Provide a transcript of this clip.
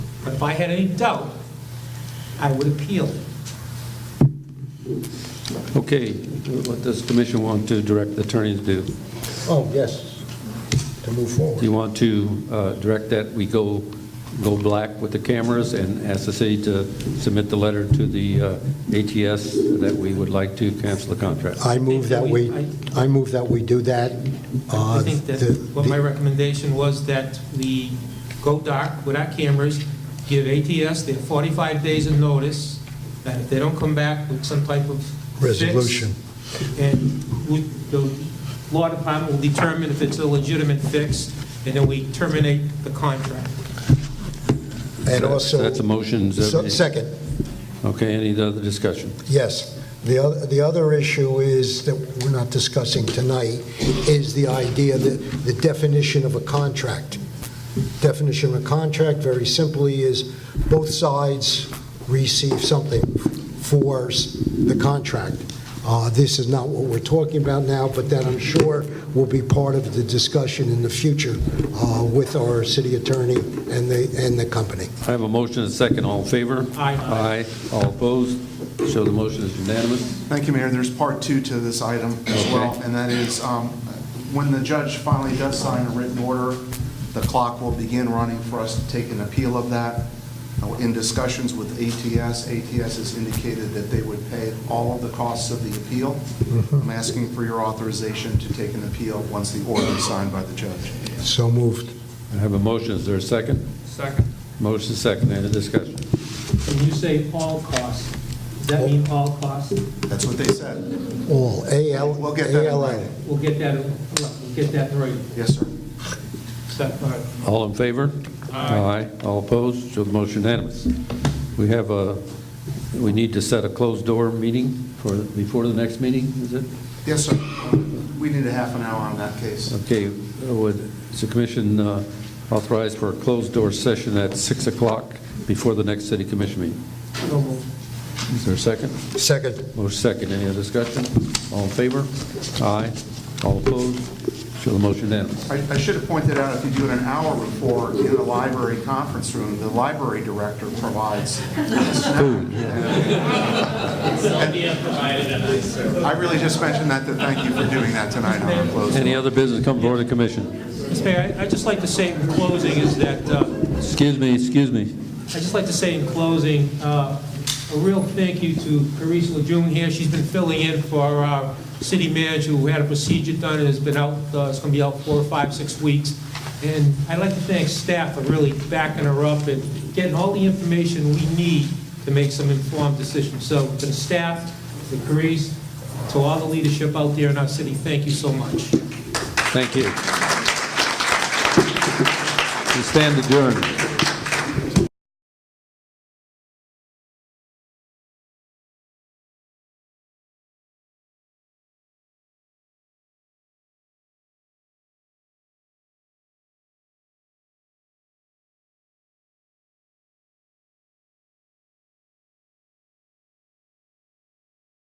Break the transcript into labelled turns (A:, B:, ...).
A: But if I had any doubt, I would appeal it.
B: Okay, what does the commission want to direct the attorneys to do?
C: Oh, yes, to move
B: Do
C: forward.
B: you want to uh, direct that we go, go black with the cameras and ask the city to submit the letter to the uh, ATS that we would like to cancel the contract?
C: I move that we, I move that we do that. Uh,
A: I think that
C: the-
A: what my recommendation was that we go dark with our cameras, give ATS their 45 days of notice, that if they don't come back with some type of fix,
C: Resolution.
A: And we- the law department will determine if it's a legitimate fix, and then we terminate the contract.
C: And
B: So
C: also.
B: That's a motion. is
C: So-
B: that-
C: Second,
B: Okay, any other discussion?
C: yes. The other, the other issue is that we're not discussing tonight is the idea that the definition of a contract. Definition of a contract, very simply, is both sides receive something for s- the contract. Uh, This is not what we're talking about now, but that I'm sure will be part of the discussion in the future uh, with our city attorney and the, and the company.
B: I have a motion and a second. All in favor?
A: Aye.
B: Aye. All opposed? So the motion is unanimous.
D: Thank you, Mayor. There's part two to this item as well,
B: Okay.
D: and that is, um, when the judge finally does sign a written order, the clock will begin running for us to take an appeal of that. Uh, In discussions with ATS, ATS has indicated that they would pay all of the costs of the appeal. I'm asking for your authorization to take an appeal once the order is signed by the judge.
C: So moved.
B: I have a motion. Is there a second?
A: Second.
B: Motion second. Any discussion?
A: When you say all costs, does that mean all costs?
D: That's what they said.
C: All, A-L,
D: We'll get that in
C: A-L-A.
D: writing.
A: We'll get that, we'll get that right.
D: Yes, sir.
A: Second.
B: All in favor? Aye. All opposed? So the motion unanimous. We have a, we need to set a closed door meeting for, before the next meeting, is it?
D: Yes, sir. We need a half an hour on that case.
B: Okay, would, is the commission uh, authorized for a closed door session at 6 o'clock before the next city commission meeting?
A: So moved.
B: Is there a second?
C: Second.
B: Motion second. Any other discussion? All in favor? Aye. All opposed? So the motion unanimous.
D: I I should have pointed out, if you do an hour report in the library conference room, the library director provides food. I really just mentioned that, to thank you for doing that tonight on our closing.
B: Any other business come before the commission?
A: Mr. Mayor, I- I'd just like to say in closing is that uh,
B: Excuse me, excuse me.
A: I'd just like to say in closing, uh, a real thank you to Carice Lejeune here. She's been filling in for our city manager who had a procedure done and has been out, uh, is going to be out four, five, six weeks. And I'd like to thank staff for really backing her up and getting all the information we need to make some informed decisions. So to the staff, to Carice, to all the leadership out there in our city, thank you so much.
B: Thank you. We stand adjourned.